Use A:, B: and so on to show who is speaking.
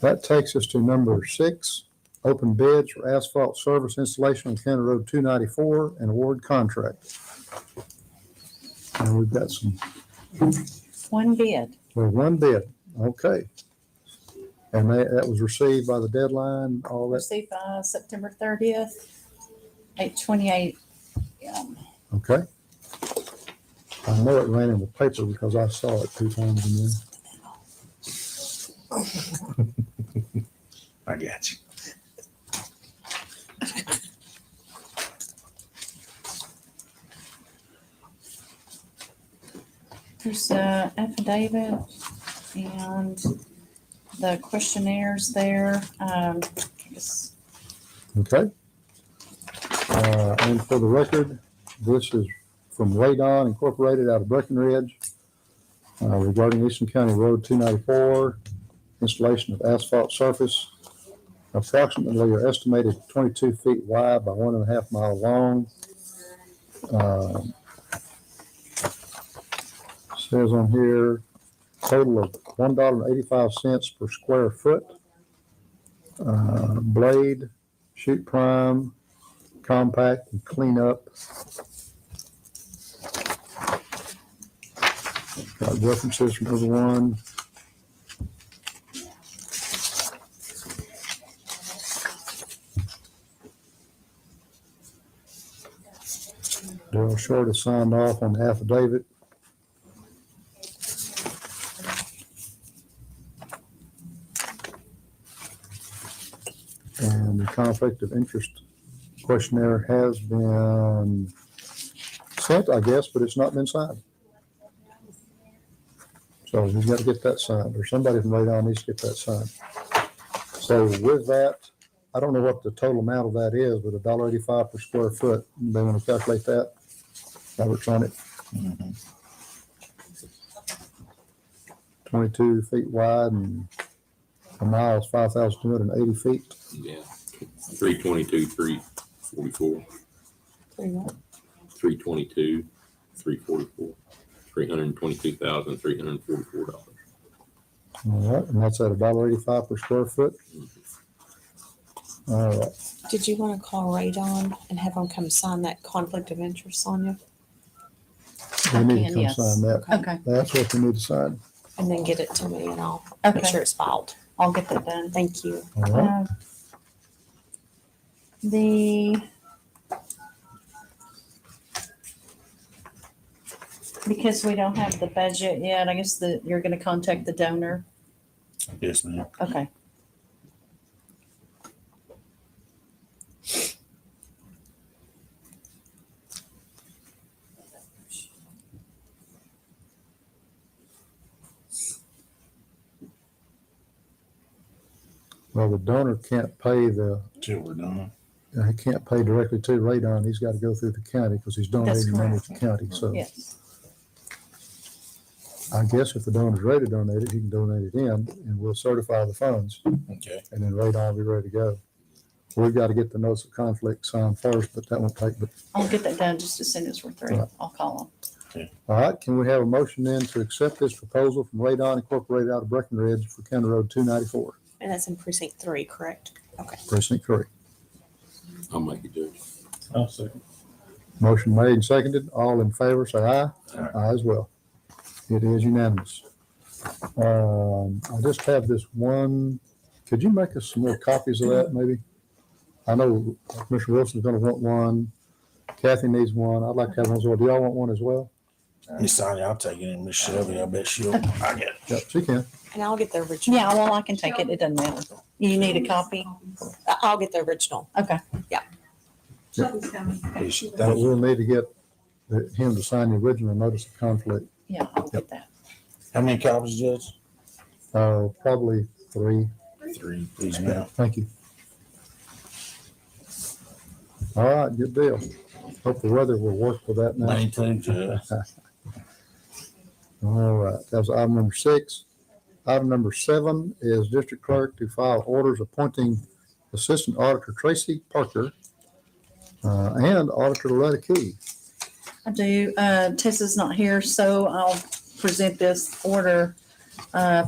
A: That takes us to number six, open bids for asphalt service installation on County Road two ninety-four and award contract. And we've got some
B: One bid.
A: Well, one bid, okay. And that, that was received by the deadline, all that,
B: Received by uh, September thirtieth, eight twenty-eight. um,
A: okay? I know it ran in the paper because I saw it two times in there.
C: I got you.
B: There's a affidavit and the questionnaires there. Um, it's-
A: Okay. Uh, And for the record, this is from Radon Incorporated out of Breckenridge uh, regarding Eastern County Road 294, installation of asphalt surface approximately or estimated 22 feet wide by one and a half mile long. Um, Says on here, total of $1.85 per square foot. Uh, Blade shoot prime, compact, and clean up. Got references from everyone. Daryl Short has signed off on the affidavit. And the conflict of interest questionnaire has been sent, I guess, but it's not been signed. So we've got to get that signed, or somebody from Radon needs to get that signed. So with that, I don't know what the total amount of that is, but a dollar eighty-five per square foot, they want to calculate that. Robert's on it. Twenty-two feet wide and a mile is five thousand two hundred and eighty feet.
D: Yeah, three twenty-two, three forty-four,
B: three what?
D: three twenty-two, three forty-four, three hundred and twenty-two thousand, three hundred and forty-four dollars.
A: All right, and that's at a dollar eighty-five per square foot. All right,
E: Did you want to call Radon and have them come sign that conflict of interest on you
A: we need to
B: Again,
A: come
B: yes.
A: sign that.
B: Okay,
A: That's what we need to sign.
E: and then get it to me and I'll make
B: okay,
E: sure it's filed?
B: I'll get that done.
E: Thank you.
A: All right,
B: Uh, The because we don't have the budget yet, I guess that you're gonna contact the donor.
C: Yes, ma'am.
B: Okay.
A: well, the donor can't pay the, uh,
C: Till we're done.
A: he can't pay directly to Radon. He's got to go through the county because he's donating money to the county. So
B: Yes.
A: I guess if the donor's ready to donate it, he can donate it in and we'll certify the funds
C: Okay.
A: and then Radon will be ready to go. We've got to get the notice of conflict signed first, but that won't take but
B: I'll get that done just as soon as we're through.
A: Right.
B: I'll call
A: All right, can we have a motion then to accept this proposal from Radon Incorporated out of Breckenridge for County Road two ninety-four,
E: And that's in precinct three, correct? Okay.
A: precinct three?
D: I'll make it, Judge.
C: I'll second.
A: Motion made and seconded. All in favor, say aye.
C: Aye.
A: Aye as well. It is unanimous. Um, I just have this one. Could you make us some more copies of that, maybe? I know Commissioner Wilson's gonna want one. Kathy needs one. I'd like to have one as well. Do y'all want one as well?
C: Miss Sonia, I'll take it. And Miss Shelby, I bet she'll. I got it.
A: Yep, she can.
E: And I'll get the
B: them.
E: original.
B: Yeah, well, I can take it. It doesn't matter. You need a copy?
E: I- I'll get the original.
B: Okay.
F: Shelby's coming.
C: Yes,
A: But
C: thank you.
A: we'll need to get the- him to sign the original notice of conflict.
B: Yeah, I'll get that.
C: How many copies, Judge?
A: Uh, probably three.
C: Three. Please, ma'am.
A: Thank you. All right, good deal. Hope the weather will work with that now.
C: Lane two, Judge.
A: All right, that was item number six. Item number seven is district clerk to file orders appointing Assistant Auditor Tracy Parker uh, and Auditor Loretta Key.
B: I do. Uh, Tessa's not here, so I'll present this order, uh,